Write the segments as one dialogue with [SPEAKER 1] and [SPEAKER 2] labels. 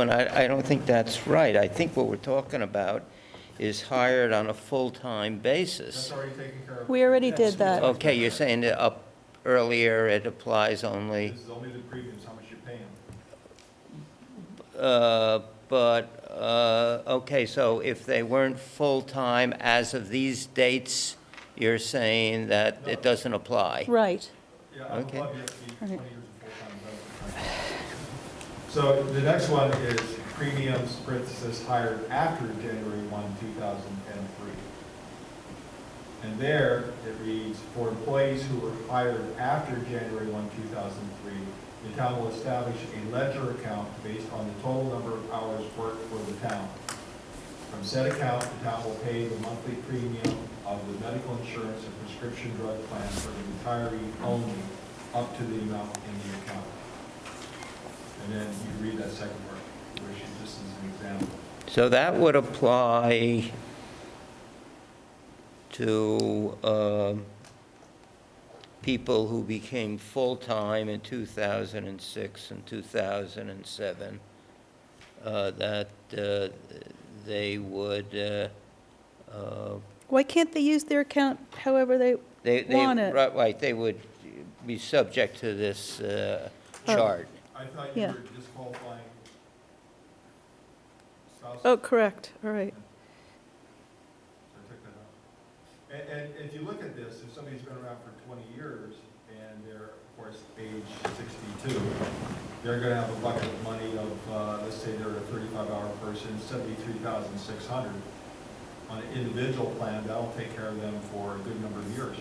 [SPEAKER 1] And I, I don't think that's right. I think what we're talking about is hired on a full-time basis.
[SPEAKER 2] That's already taken care of.
[SPEAKER 3] We already did that.
[SPEAKER 1] Okay, you're saying that up earlier, it applies only,
[SPEAKER 2] This is only the premiums, how much you pay them.
[SPEAKER 1] uh, but, uh, okay, so if they weren't full-time as of these dates, you're saying that it doesn't apply?
[SPEAKER 3] Right.
[SPEAKER 2] Yeah, I'm
[SPEAKER 1] Okay.
[SPEAKER 2] above you have to be 20
[SPEAKER 3] Right.
[SPEAKER 2] years of full-time resident. So the next one is premiums, parenthesis, hired after January 1, 2003. And there, it reads, for employees who were hired after January 1, 2003, the town will establish a ledger account based on the total number of hours worked for the town. From said account, the town will pay the monthly premium of the medical insurance and prescription drug plan for the retiree only, up to the amount in the account. And then you read that second part, which is just as an example.
[SPEAKER 1] So that would apply to um, people who became full-time in 2006 and 2007, uh, that uh, they would, uh, uh,
[SPEAKER 3] Why can't they use their account however they,
[SPEAKER 1] they, they-
[SPEAKER 3] Want it.
[SPEAKER 1] right, right, they would be subject to this uh,
[SPEAKER 3] Oh.
[SPEAKER 1] chart.
[SPEAKER 2] I thought you
[SPEAKER 3] Yeah.
[SPEAKER 2] were disqualifying spouses.
[SPEAKER 3] oh, correct, all right.
[SPEAKER 2] So I took that out. And, and if you look at this, if somebody's been around for twenty years and they're, of course, age sixty-two, they're gonna have a bucket of money of, uh, let's say they're a thirty-five hour person, seventy-three thousand six hundred. On an individual plan, that'll take care of them for a good number of years.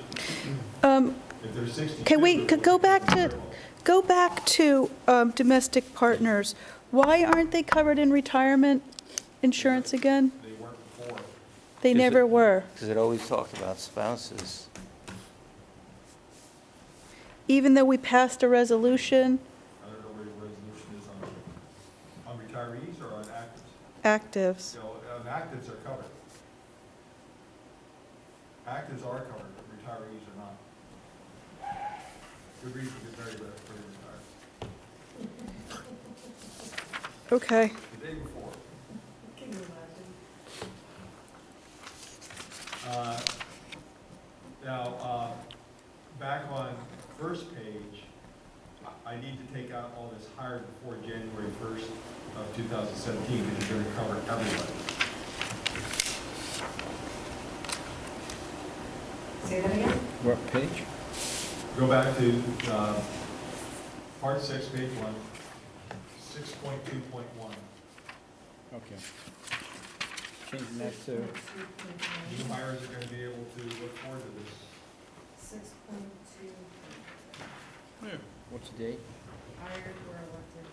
[SPEAKER 3] Um,
[SPEAKER 2] If they're sixty-two.
[SPEAKER 3] Can we-
[SPEAKER 2] it would
[SPEAKER 3] could go
[SPEAKER 2] be
[SPEAKER 3] back to-
[SPEAKER 2] considerable.
[SPEAKER 3] Go back to um, domestic partners. Why aren't they covered in retirement insurance again?
[SPEAKER 2] They weren't before.
[SPEAKER 3] They
[SPEAKER 1] Is it-
[SPEAKER 3] never were,
[SPEAKER 1] Because it always talked about spouses.
[SPEAKER 3] even though we passed a resolution,
[SPEAKER 2] I don't know where your resolution is on, on retirees or on actives?
[SPEAKER 3] actives.
[SPEAKER 2] So, um, actives are covered. Actives are covered, but retirees are not. Good reason to get married, but pretty retired.
[SPEAKER 3] Okay,
[SPEAKER 2] The day before. Uh, Now, uh, back on first page, I, I need to take out all this hired before January first of two thousand seventeen, because you're gonna cover everybody.
[SPEAKER 4] Say that again?
[SPEAKER 5] What page?
[SPEAKER 2] Go back to, uh, part six, page one, six point two point one,
[SPEAKER 5] Okay. Changing that to,
[SPEAKER 2] new hires are gonna be able to look forward to this.
[SPEAKER 4] Six point two,
[SPEAKER 5] what's the date?
[SPEAKER 4] hired or elected.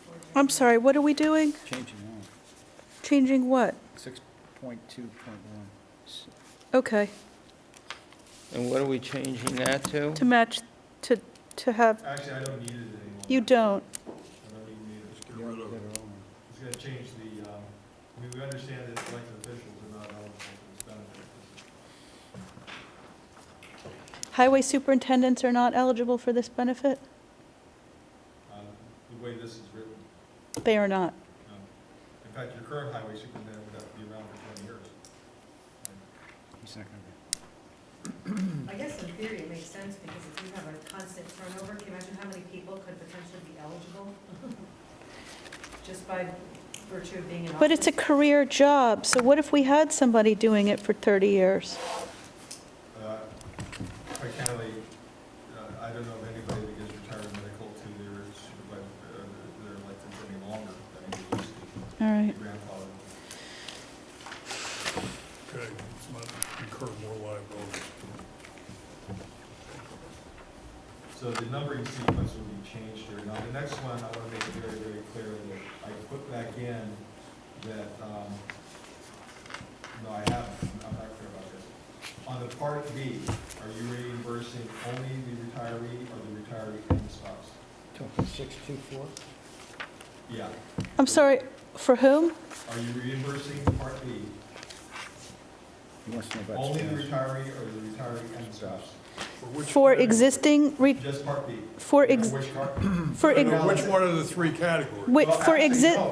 [SPEAKER 4] before
[SPEAKER 3] I'm
[SPEAKER 4] January.
[SPEAKER 3] sorry, what are we doing?
[SPEAKER 5] Changing that.
[SPEAKER 3] Changing what?
[SPEAKER 5] Six point two point one.
[SPEAKER 3] Okay,
[SPEAKER 1] And what are we changing that to?
[SPEAKER 3] to match, to, to have,
[SPEAKER 2] Actually, I don't need it anymore.
[SPEAKER 3] you don't.
[SPEAKER 2] I don't even need it.
[SPEAKER 5] Get rid of it.
[SPEAKER 2] It's gonna change the, um, I mean, we understand that elected officials are not eligible for this benefit.
[SPEAKER 3] Highway superintendents are not eligible for this benefit?
[SPEAKER 2] Um, The way this is written,
[SPEAKER 3] They are not.
[SPEAKER 2] um, in fact, your current highway superintendent would have to be around for twenty years.
[SPEAKER 5] He's not gonna
[SPEAKER 4] I guess in theory it makes sense because if you have a constant turnover, can you imagine how many people could potentially be eligible? Just by virtue of being an officer?
[SPEAKER 3] But it's a career job, so what if we had somebody doing it for 30 years?
[SPEAKER 2] Uh, Quite candidly, uh, I don't know of anybody that gets retired medical to their supervisor, uh, their elected any longer than they used to.
[SPEAKER 3] All right.
[SPEAKER 2] Grandfather.
[SPEAKER 6] Okay, it's not incur more liability.
[SPEAKER 2] So the numbering sequence will be changed here. Now, the next one, I want to make it very, very clear that I put back in that, um, no, I haven't, I'm not clear about this. On the Part B, are you reimbursing only the retiree or the retiree and the spouse?
[SPEAKER 5] be. Six two four?
[SPEAKER 2] Yeah.
[SPEAKER 3] I'm sorry, for whom?
[SPEAKER 2] Are you reimbursing Part B
[SPEAKER 5] He wants to know about.
[SPEAKER 2] Only the
[SPEAKER 5] spouse.
[SPEAKER 2] retiree or the retiree and spouse,
[SPEAKER 6] For which
[SPEAKER 3] For
[SPEAKER 6] category?
[SPEAKER 3] existing, re-
[SPEAKER 2] just Part B.
[SPEAKER 3] for,
[SPEAKER 2] You know
[SPEAKER 3] ex-
[SPEAKER 2] Which part?
[SPEAKER 3] for,
[SPEAKER 6] I
[SPEAKER 3] ex-
[SPEAKER 6] know Which one of the three categories?
[SPEAKER 3] wait,
[SPEAKER 2] Well,
[SPEAKER 3] for
[SPEAKER 2] actually,
[SPEAKER 3] exist,
[SPEAKER 2] no.